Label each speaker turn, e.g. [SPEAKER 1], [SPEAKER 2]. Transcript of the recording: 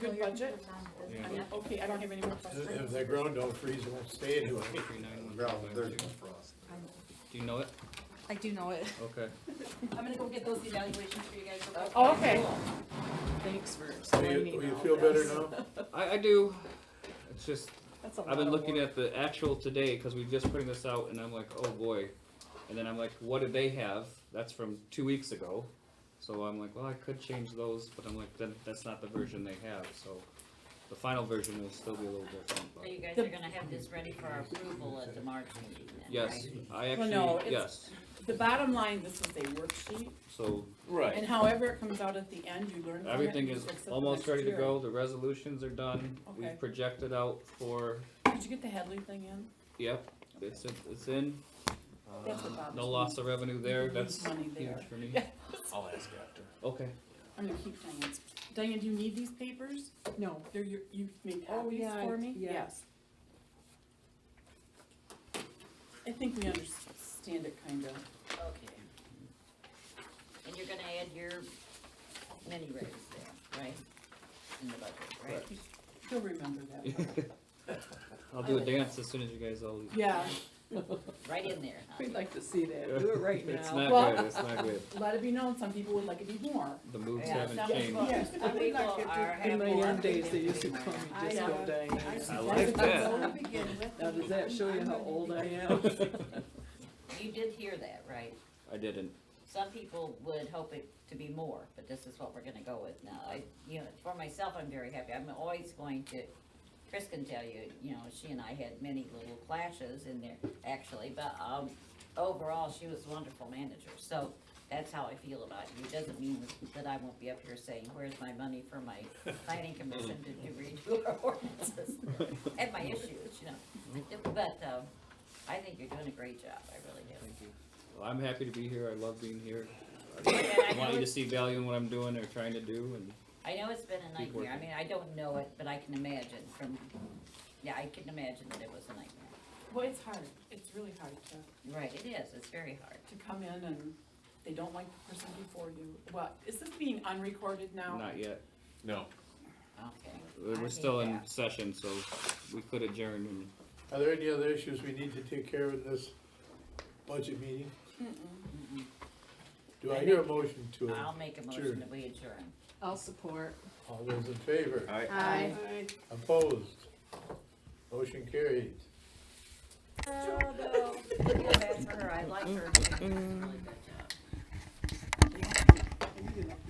[SPEAKER 1] Good budget?
[SPEAKER 2] Yeah.
[SPEAKER 1] I'm- Okay, I don't have any more
[SPEAKER 3] If
[SPEAKER 1] questions.
[SPEAKER 3] they're grown, don't freeze, they won't stay anyway.
[SPEAKER 2] Three nine one
[SPEAKER 4] Well,
[SPEAKER 2] two
[SPEAKER 4] there's-
[SPEAKER 2] nine two. Do you know it?
[SPEAKER 5] I do know it.
[SPEAKER 2] Okay.
[SPEAKER 5] I'm gonna go get those evaluations for you guys. okay?
[SPEAKER 1] Oh, okay.
[SPEAKER 5] Thanks for
[SPEAKER 3] Will
[SPEAKER 5] explaining
[SPEAKER 3] you- will you
[SPEAKER 5] all
[SPEAKER 3] feel better
[SPEAKER 5] this.
[SPEAKER 3] now?
[SPEAKER 2] I, I do. It's just,
[SPEAKER 1] That's a lot
[SPEAKER 2] I've been
[SPEAKER 1] of
[SPEAKER 2] looking
[SPEAKER 1] work.
[SPEAKER 2] at the actual today, because we've just putting this out, and I'm like, oh boy. And then I'm like, what did they have? That's from two weeks ago. So I'm like, well, I could change those, but I'm like, then, that's not the version they have, so the final version will still be a little different,
[SPEAKER 6] So
[SPEAKER 2] but.
[SPEAKER 6] you guys are gonna have this ready for our approval at the March meeting then,
[SPEAKER 2] Yes,
[SPEAKER 6] right?
[SPEAKER 2] I
[SPEAKER 1] Well, no,
[SPEAKER 2] actually,
[SPEAKER 1] it's-
[SPEAKER 2] yes,
[SPEAKER 1] The bottom line, this is a worksheet,
[SPEAKER 2] so
[SPEAKER 1] and
[SPEAKER 4] Right.
[SPEAKER 1] however it comes out at the end, you learn from it.
[SPEAKER 2] everything
[SPEAKER 1] and you
[SPEAKER 2] is
[SPEAKER 1] fix it the
[SPEAKER 2] almost
[SPEAKER 1] next
[SPEAKER 2] ready to
[SPEAKER 1] year.
[SPEAKER 2] go, the resolutions are done,
[SPEAKER 1] Okay.
[SPEAKER 2] we've projected out for,
[SPEAKER 1] Did you get the Headley thing in?
[SPEAKER 2] yep, it's, it's in.
[SPEAKER 4] Uh,
[SPEAKER 1] That's what bothers me.
[SPEAKER 2] Uh, No loss of revenue there,
[SPEAKER 1] You can
[SPEAKER 2] that's
[SPEAKER 1] lose money there.
[SPEAKER 2] huge for me.
[SPEAKER 1] Yeah.
[SPEAKER 4] I'll ask after.
[SPEAKER 2] Okay,
[SPEAKER 1] I'm gonna keep Diane. Diane, do you need these papers? No, they're your, you made
[SPEAKER 5] Oh,
[SPEAKER 1] copies
[SPEAKER 5] yeah, I-
[SPEAKER 1] for me?
[SPEAKER 5] yeah.
[SPEAKER 1] Yes. I think we understand it kinda.
[SPEAKER 6] Okay. And you're gonna add your mini raise there, right? In the budget, right?
[SPEAKER 1] You'll remember that.
[SPEAKER 2] I'll do a dance as soon as you guys all leave.
[SPEAKER 1] Yeah,
[SPEAKER 6] Right in there, huh?
[SPEAKER 5] We'd like to see that, do it right
[SPEAKER 2] It's
[SPEAKER 5] now.
[SPEAKER 2] not good, it's not good.
[SPEAKER 1] let it be known, some people would like it be more.
[SPEAKER 2] The moves
[SPEAKER 6] Yeah,
[SPEAKER 2] haven't
[SPEAKER 1] some
[SPEAKER 2] changed.
[SPEAKER 1] people-
[SPEAKER 7] Yes, I
[SPEAKER 6] Some
[SPEAKER 7] would
[SPEAKER 6] people
[SPEAKER 7] like it
[SPEAKER 6] are,
[SPEAKER 7] to.
[SPEAKER 5] In
[SPEAKER 6] have
[SPEAKER 5] my
[SPEAKER 6] more.
[SPEAKER 5] young days, they
[SPEAKER 6] than
[SPEAKER 5] used to
[SPEAKER 6] people
[SPEAKER 5] call me
[SPEAKER 6] are.
[SPEAKER 5] just
[SPEAKER 1] I
[SPEAKER 5] go
[SPEAKER 1] know.
[SPEAKER 5] Diane.
[SPEAKER 7] see
[SPEAKER 2] I
[SPEAKER 7] that's
[SPEAKER 2] like
[SPEAKER 7] what
[SPEAKER 2] that.
[SPEAKER 7] I would begin with.
[SPEAKER 5] Now, does that show you how old I am?
[SPEAKER 6] You did hear that, right?
[SPEAKER 2] I didn't.
[SPEAKER 6] Some people would hope it to be more, but this is what we're gonna go with now. I, you know, for myself, I'm very happy. I'm always going to, Chris can tell you, you know, she and I had many little clashes in there, actually, but, um, overall, she was a wonderful manager, so that's how I feel about you. It doesn't mean that I won't be up here saying, where's my money for my planning commission to do redo our ordinances? And my issues, you know, but, um, I think you're doing a great job, I really do.
[SPEAKER 2] Thank you. Well, I'm happy to be here, I love being here.
[SPEAKER 6] I
[SPEAKER 2] I want you
[SPEAKER 6] know
[SPEAKER 2] to see value in what I'm doing or trying to do and
[SPEAKER 6] I know it's been a
[SPEAKER 2] Keep
[SPEAKER 6] nightmare, I
[SPEAKER 2] working.
[SPEAKER 6] mean, I don't know it, but I can imagine from, yeah, I can imagine that it was a nightmare.
[SPEAKER 1] Well, it's hard, it's really hard to,
[SPEAKER 6] Right, it is, it's very hard.
[SPEAKER 1] to come in and they don't like the person before you. Well, is this being unrecorded now?
[SPEAKER 2] not yet.
[SPEAKER 4] No.
[SPEAKER 6] Okay. I
[SPEAKER 2] We're
[SPEAKER 6] hate
[SPEAKER 2] still in
[SPEAKER 6] that.
[SPEAKER 2] session, so we could adjourn and
[SPEAKER 3] Are there any other issues we need to take care of in this budget meeting? Do I hear a motion to,
[SPEAKER 6] I'll make a
[SPEAKER 3] Sure.
[SPEAKER 6] motion that we adjourn.
[SPEAKER 5] I'll support.
[SPEAKER 3] all those in favor?
[SPEAKER 5] Aye.
[SPEAKER 3] Opposed? Motion carried.
[SPEAKER 6] I feel bad for her, I like her. She did a really good job.